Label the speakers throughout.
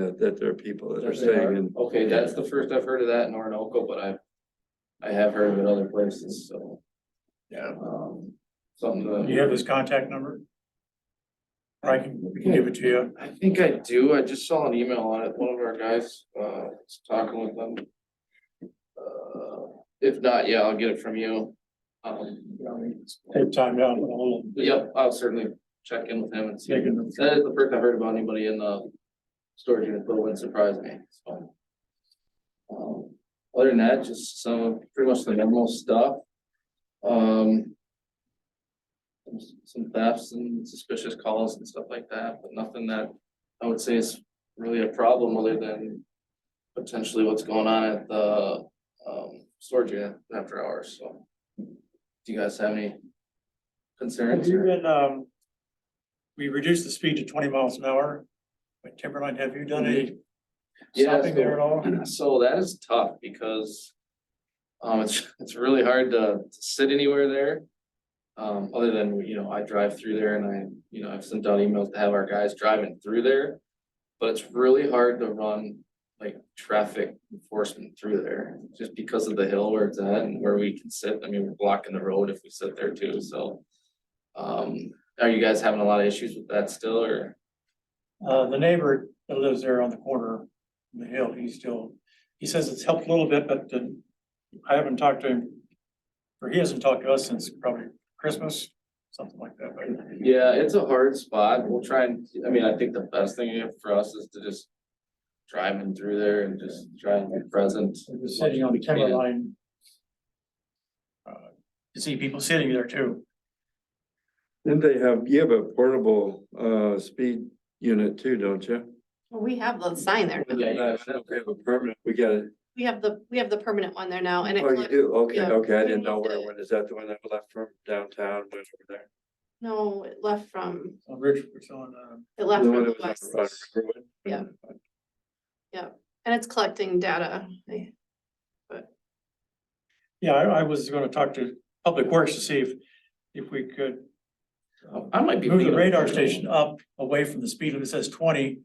Speaker 1: that, that there are people that are
Speaker 2: That they are.
Speaker 1: staying in.
Speaker 2: Okay, that's the first I've heard of that in Orinoco, but I, I have heard of it other places, so,
Speaker 1: Yeah.
Speaker 2: um, something to.
Speaker 3: Do you have his contact number? I can, we can give it to you.
Speaker 2: I think I do, I just saw an email on it, one of our guys, uh, was talking with them. Uh, If not, yeah, I'll get it from you. Um,
Speaker 3: Take time down a little.
Speaker 2: but Yep, I'll certainly check in with him and see.
Speaker 3: Take it.
Speaker 2: That is the first I heard about anybody in the storage unit, but it wouldn't surprise me, so. Um, Other than that, just some, of pretty much the normal stuff. Um. Some thefts and suspicious calls and stuff like that, but nothing that I would say is really a problem other than. Potentially what's going on at the um storage unit after hours, so. Do you guys have any
Speaker 3: Have
Speaker 2: concerns?
Speaker 3: you been, um, we reduced the speed to twenty miles an hour. But Timberline, have you done any
Speaker 2: Yeah,
Speaker 3: stopping there at all?
Speaker 2: So that is tough because. Um, it's, it's really hard to to sit anywhere there. Um, other than, you know, I drive through there and I, you know, I've sent out emails to have our guys driving through there. But it's really hard to run like traffic enforcement through there, just because of the hill where it's at and where we can sit. I mean, we're blocking the road if we sit there too, so. Um, are you guys having a lot of issues with that still or?
Speaker 3: Uh, the neighbor that lives there on the corner, of the hill, he's still, he says it's helped a little bit, but uh, I haven't talked to him. Or he hasn't talked to us since probably Christmas, something like that, but
Speaker 2: Yeah, it's a hard spot. We'll try and, I mean, I think the best thing for us is to just. Driving through there and just try and be present.
Speaker 3: we're just sitting on the Timberline. uh, You see people sitting there too.
Speaker 1: Then they have, you have a portable, uh, speed unit too, don't you?
Speaker 4: Well, we have the sign there. now.
Speaker 2: Yeah, you
Speaker 1: Uh,
Speaker 2: guys have
Speaker 1: We have a permanent, we got it.
Speaker 4: We have the, we have the permanent one there now and
Speaker 1: Oh, you
Speaker 4: it's,
Speaker 1: do? Okay,
Speaker 4: yeah,
Speaker 1: okay. I
Speaker 4: we
Speaker 1: didn't know
Speaker 4: moved
Speaker 1: where,
Speaker 4: it.
Speaker 1: when is that the one that left from downtown, went over there?
Speaker 4: no, it left from,
Speaker 3: On Ridge, it's on, uh,
Speaker 4: it left
Speaker 1: The
Speaker 4: from
Speaker 1: one
Speaker 4: the
Speaker 1: that was
Speaker 4: west
Speaker 1: on- on Riverwood?
Speaker 4: Yeah. and it's collecting data. I-
Speaker 3: yeah, I, I was gonna talk to Public Works to see if, if we could
Speaker 2: I might be.
Speaker 3: move the
Speaker 2: thinking of-
Speaker 3: radar station up away from the speed limit, it says twenty.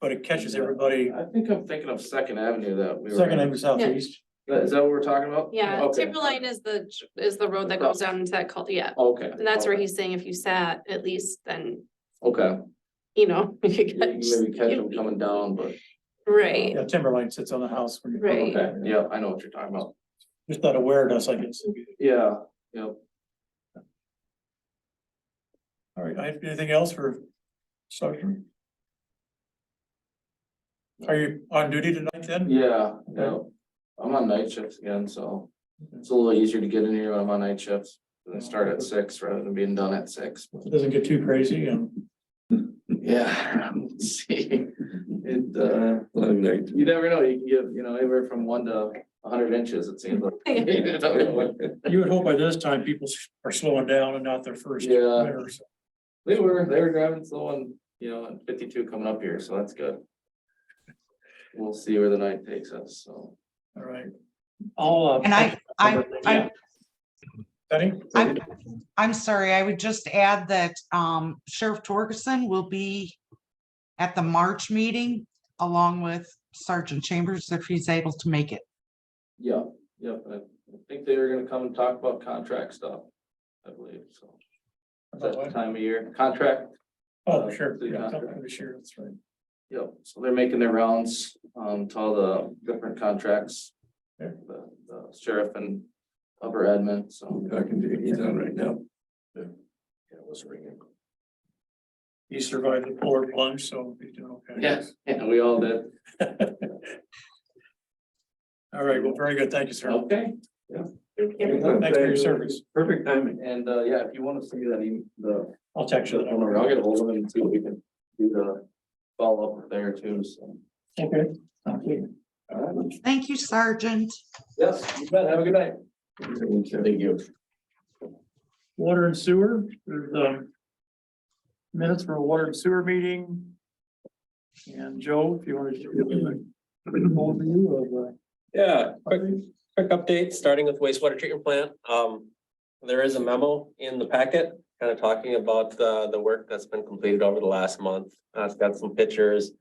Speaker 3: But it catches everybody,
Speaker 2: I think I'm thinking of Second Avenue that we were.
Speaker 3: second avenue southeast.
Speaker 2: That- Is that what we're talking about?
Speaker 4: Yeah,
Speaker 2: Okay.
Speaker 4: Timberline is the, is the road that goes down into that cul, yeah.
Speaker 2: Okay.
Speaker 4: And that's where
Speaker 2: okay,
Speaker 4: he's saying if you sat at least, then,
Speaker 2: Okay,
Speaker 4: you know. you
Speaker 2: You
Speaker 4: could-
Speaker 2: can maybe catch them
Speaker 4: you'd be-
Speaker 2: coming down, but,
Speaker 4: Right,
Speaker 3: Yeah, Timberline sits on the house when you're
Speaker 4: Right.
Speaker 2: okay, yeah, I know what you're talking about.
Speaker 3: just not aware of us, I guess.
Speaker 2: Yeah, yeah.
Speaker 3: All right, I have anything else for Sergeant? Are you on duty tonight then?
Speaker 2: Yeah, yeah. I'm on night shifts again, so it's a little easier to get in here when I'm on night shifts. And I start at six rather than being done at six.
Speaker 3: It Doesn't get too crazy um, and
Speaker 2: Yeah, let's see, it, uh,
Speaker 1: Long night.
Speaker 2: you never know, you can give, you know, anywhere from one to a hundred inches, it seems like.
Speaker 3: you would hope by this time people s- are slowing down and not their first.
Speaker 2: Yeah.
Speaker 3: winter, so.
Speaker 2: They were, they were driving slow on, you know, on fifty-two coming up here, so that's good. We'll see where the night takes us, so.
Speaker 3: All right. All.
Speaker 5: And I, I, I,
Speaker 3: Benny?
Speaker 5: I'm, I'm sorry, I would just add that um Sheriff Torgerson will be at the March meeting along with Sergeant Chambers if he's able to make it.
Speaker 2: Yeah, yeah, I I think they were gonna come and talk about contract stuff, I believe, so. That's the time of year, contract,
Speaker 3: Oh, sure.
Speaker 2: Yeah.
Speaker 3: Yeah, something this year, that's right.
Speaker 2: yep, so they're making their rounds, um, to all the different contracts.
Speaker 3: Yeah.
Speaker 2: The the sheriff and upper admin, so.
Speaker 1: I'm talking to you. He's on right now.
Speaker 2: Yeah, it was ringing.
Speaker 3: He survived the polar plunge, so he's doing okay.
Speaker 2: Yes, yeah, we all did,
Speaker 3: All right, well, very good. Thank you, sir.
Speaker 2: okay,
Speaker 3: Thanks for your service.
Speaker 1: Perfect timing.
Speaker 2: and, uh, yeah, if you wanna see that, e- the,
Speaker 3: I'll text you.
Speaker 2: actually,
Speaker 3: that number.
Speaker 2: I'll get hold of them and see if we can do the follow up there too, so.
Speaker 3: Okay.
Speaker 2: All right.
Speaker 5: Thank you, Sergeant.
Speaker 2: Yes, you bet, have a good night. Thank you.
Speaker 3: Water and sewer, there's um minutes for a water and sewer meeting. And Joe, if you want to. Overview of
Speaker 6: Yeah,
Speaker 3: uh,
Speaker 6: quick, quick update, starting with wastewater treatment plant. Um, there is a memo in the packet kind of talking about the, the work that's been completed over the last month. Uh, it's got some pictures,